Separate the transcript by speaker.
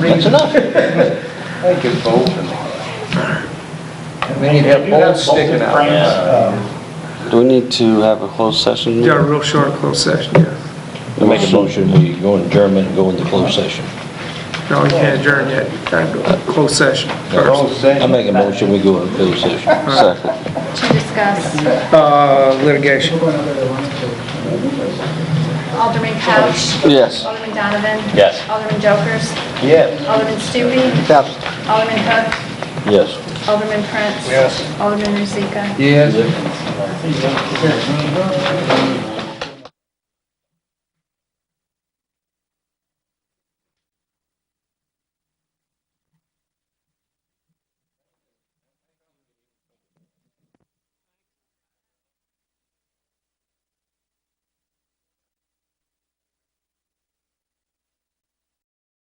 Speaker 1: That's enough.
Speaker 2: Thank you, both. and-
Speaker 1: We need to have bolts sticking out.
Speaker 3: Do we need to have a closed session?
Speaker 4: Yeah, real short closed session, yeah.
Speaker 5: We make a motion, we go in German, go into closed session.
Speaker 4: No, we can't adjourn yet. Time to close session first.
Speaker 2: Closed session.
Speaker 5: I make a motion, we go in closed session.
Speaker 3: Second.
Speaker 6: to discuss
Speaker 4: Uh, litigation.
Speaker 6: Alderman Couch.
Speaker 3: Yes.
Speaker 6: Alderman Donovan.
Speaker 5: Yes.
Speaker 6: Alderman Jokers.
Speaker 2: Yes.
Speaker 6: Alderman Stupi. Alderman Hook.
Speaker 5: Yes.
Speaker 6: Alderman Prince.
Speaker 1: Yes.
Speaker 6: Alderman Rozika.
Speaker 1: Yes.